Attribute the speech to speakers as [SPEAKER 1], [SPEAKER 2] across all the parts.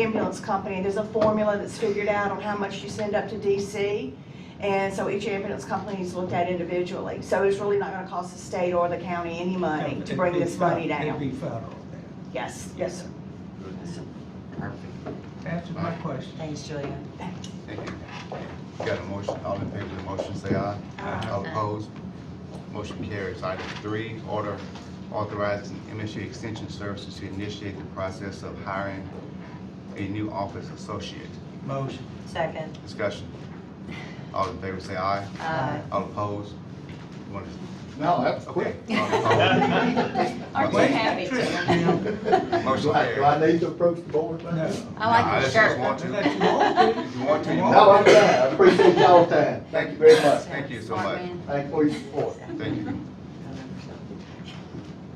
[SPEAKER 1] insurance company. There's a formula that's figured out on how much you send up to DC. And so each ambulance company is looked at individually. So it's really not gonna cost the state or the county any money to bring this money
[SPEAKER 2] It'd
[SPEAKER 1] down.
[SPEAKER 2] be federal then.
[SPEAKER 1] Yes, yes, sir.
[SPEAKER 3] Perfect.
[SPEAKER 2] Answer my question.
[SPEAKER 4] Thanks, Julia.
[SPEAKER 3] Thank you. Got a motion, all in favor of the motion, say aye.
[SPEAKER 1] Aye.
[SPEAKER 3] All opposed? Motion carries. Item three, order authorizing MSU Extension Services to initiate the process of hiring a new office associate.
[SPEAKER 2] Motion.
[SPEAKER 4] Second.
[SPEAKER 3] Discussion. All in favor, say aye.
[SPEAKER 4] Aye.
[SPEAKER 3] All opposed? You want to-
[SPEAKER 5] No, that's
[SPEAKER 3] Okay.
[SPEAKER 5] quick.
[SPEAKER 3] All opposed?
[SPEAKER 6] Aren't you
[SPEAKER 3] Wait.
[SPEAKER 6] happy to?
[SPEAKER 3] Motion
[SPEAKER 5] Do I, do I need to approach the board like this?
[SPEAKER 2] No.
[SPEAKER 6] I like
[SPEAKER 3] Nah,
[SPEAKER 6] your
[SPEAKER 3] I just
[SPEAKER 6] shirt.
[SPEAKER 3] want
[SPEAKER 2] If you want to.
[SPEAKER 3] If you want to, you
[SPEAKER 5] No, I'm
[SPEAKER 3] want
[SPEAKER 5] fine.
[SPEAKER 3] to.
[SPEAKER 5] I appreciate y'all's time. Thank you very much.
[SPEAKER 3] Thank you so
[SPEAKER 6] Smart
[SPEAKER 3] much.
[SPEAKER 6] man.
[SPEAKER 5] Thank you for your support.
[SPEAKER 3] Thank you.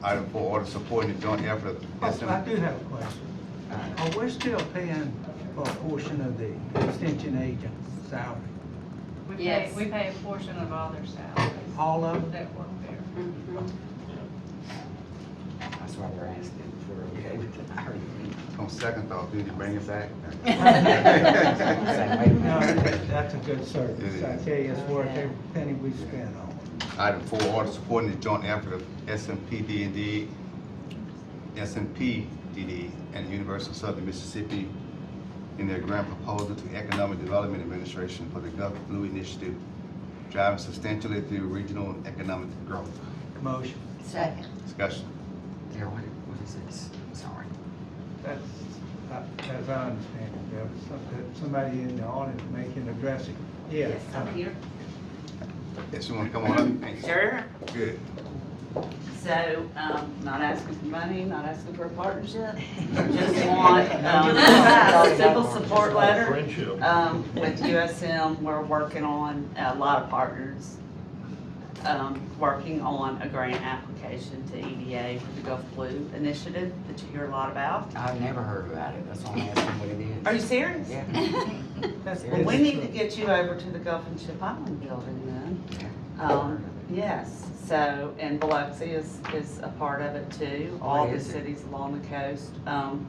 [SPEAKER 3] Item four, order supporting the joint effort of
[SPEAKER 2] Oh, I
[SPEAKER 3] SM.
[SPEAKER 2] do have a question. Are we still paying for a portion of the extension agent's salary?
[SPEAKER 7] We pay,
[SPEAKER 6] Yes.
[SPEAKER 7] we pay a portion of all their salaries
[SPEAKER 2] All of it?
[SPEAKER 7] that work there.
[SPEAKER 3] That's why we're asking for, okay? On second thought, Oh, do you bring it back?
[SPEAKER 2] No, that's a good service. I tell you, it's worth
[SPEAKER 4] Yeah.
[SPEAKER 2] every penny we spend on it.
[SPEAKER 3] Item four, order supporting the joint effort of SMPDD, SMPDD and University of Southern Mississippi in their grant proposal to Economic Development Administration for the GovBlue Initiative, driving substantially through regional economic growth.
[SPEAKER 2] Motion.
[SPEAKER 4] Second.
[SPEAKER 3] Discussion.
[SPEAKER 8] There, what, what is this? Sorry.
[SPEAKER 2] That's, uh, as I understand it, there was some- somebody in the audience making a dressing. Yeah. uh,
[SPEAKER 6] Yes, I'm here.
[SPEAKER 3] Yes, you want to come on up? Thanks.
[SPEAKER 9] Sure.
[SPEAKER 3] Good.
[SPEAKER 9] So, um, not asking for money, not asking for a partnership, just want, um, a simple support letter.
[SPEAKER 5] Friendship.
[SPEAKER 9] Um, with USM, we're working on, a lot of partners, um, working on a grant application to EDA for the Gulf Blue Initiative that you hear a lot about.
[SPEAKER 8] I've never heard about it. That's why I'm asking what it is.
[SPEAKER 9] Are you serious?
[SPEAKER 8] Yeah.
[SPEAKER 2] That's
[SPEAKER 9] Well, we
[SPEAKER 2] business
[SPEAKER 9] need to
[SPEAKER 2] trip.
[SPEAKER 9] get you over to the Gulf and Ship Island building then. Um, yes, so, and Biloxi is, is a part of it too, all the
[SPEAKER 8] is it?
[SPEAKER 9] cities along the coast. Um,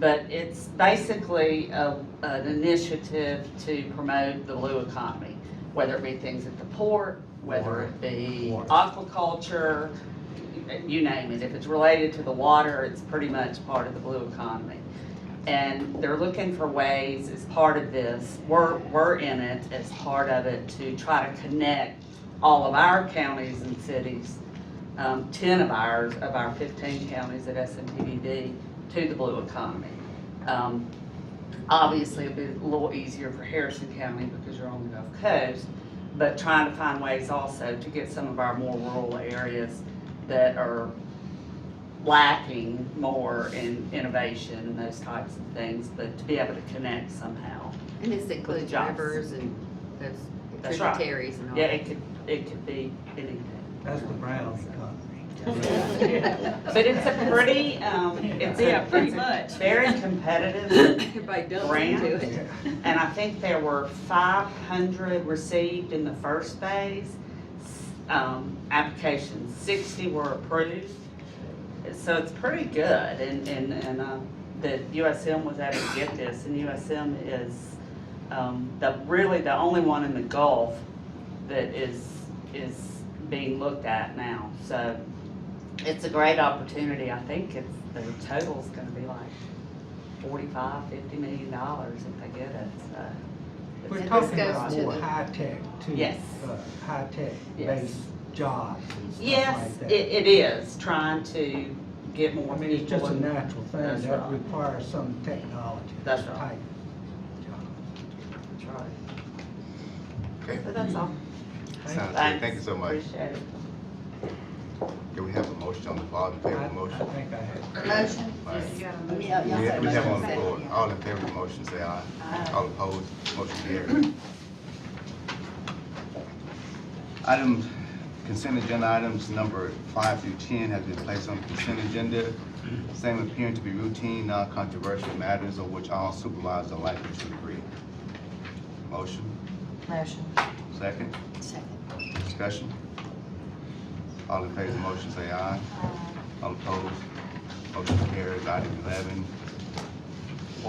[SPEAKER 9] but it's basically a, an initiative to promote the blue economy, whether it be things at the port, whether it be
[SPEAKER 2] Water.
[SPEAKER 9] aquaculture, you name it. If it's related to the water, it's pretty much part of the blue economy. And they're looking for ways as part of this, we're, we're in it as part of it to try to connect all of our counties and cities, um, ten of ours, of our fifteen counties at SMPDD to the blue economy. Um, obviously, it'd be a little easier for Harrison County because you're on the Gulf Coast, but trying to find ways also to get some of our more rural areas that are lacking more in innovation and those types of things, but to be able to connect somehow.
[SPEAKER 6] And this includes
[SPEAKER 9] jobs.
[SPEAKER 6] rivers and those
[SPEAKER 9] That's right.
[SPEAKER 6] tributaries and all.
[SPEAKER 9] Yeah, it could, it could be anything.
[SPEAKER 2] That's the brown economy.
[SPEAKER 9] But it's a pretty, um, it's a,
[SPEAKER 7] Yeah, pretty
[SPEAKER 9] it's a
[SPEAKER 7] much.
[SPEAKER 9] very competitive,
[SPEAKER 6] Everybody dumps into
[SPEAKER 9] Grant?
[SPEAKER 6] it.
[SPEAKER 9] and I think there were five hundred received in the first phase. s- Um, applications, sixty were approved, so it's pretty good, and, and, and, uh, that USM was able to get this, and USM is, um, the, really the only one in the Gulf that is, is being looked at now, so it's a great opportunity, I think it's, the total's gonna be like forty-five, fifty million dollars if they get it, so.
[SPEAKER 6] And
[SPEAKER 2] We're
[SPEAKER 6] this
[SPEAKER 2] talking
[SPEAKER 6] goes
[SPEAKER 2] about
[SPEAKER 6] to
[SPEAKER 2] more
[SPEAKER 6] the-
[SPEAKER 2] high-tech too.
[SPEAKER 9] Yes.
[SPEAKER 2] uh, High-tech
[SPEAKER 9] Yes.
[SPEAKER 2] based jobs and stuff
[SPEAKER 9] Yes,
[SPEAKER 2] like
[SPEAKER 9] it,
[SPEAKER 2] that.
[SPEAKER 9] it is, trying to get more
[SPEAKER 2] I mean, it's
[SPEAKER 9] people.
[SPEAKER 2] just a
[SPEAKER 9] in-
[SPEAKER 2] natural thing
[SPEAKER 9] That's
[SPEAKER 2] that
[SPEAKER 9] right.
[SPEAKER 2] requires some technology.
[SPEAKER 9] That's
[SPEAKER 2] type
[SPEAKER 9] right.
[SPEAKER 2] job.
[SPEAKER 9] That's right.
[SPEAKER 3] Okay.
[SPEAKER 9] So that's all.
[SPEAKER 3] Sounds good.
[SPEAKER 9] Thanks.
[SPEAKER 3] Thank you so much.
[SPEAKER 9] Appreciate it.
[SPEAKER 3] Do we have a motion on the floor? All in favor of
[SPEAKER 2] I-
[SPEAKER 3] the motion?
[SPEAKER 2] I think I have.
[SPEAKER 4] Motion?
[SPEAKER 3] All right.
[SPEAKER 7] You gotta
[SPEAKER 6] Yeah,
[SPEAKER 7] move.
[SPEAKER 6] y'all
[SPEAKER 3] We
[SPEAKER 6] said
[SPEAKER 3] we have on the
[SPEAKER 6] motion.
[SPEAKER 3] floor, all in favor of the motion, say aye. All opposed, motion carried. Item, consent agenda items number five through ten has been placed on the consent agenda. Same appearing to be routine, non-controversial matters of which all supervisors are likely to agree. Motion,
[SPEAKER 4] Motion.
[SPEAKER 3] second,
[SPEAKER 6] Second.
[SPEAKER 3] discussion. All in favor of the motion, say aye. All opposed, motion carries. Item eleven,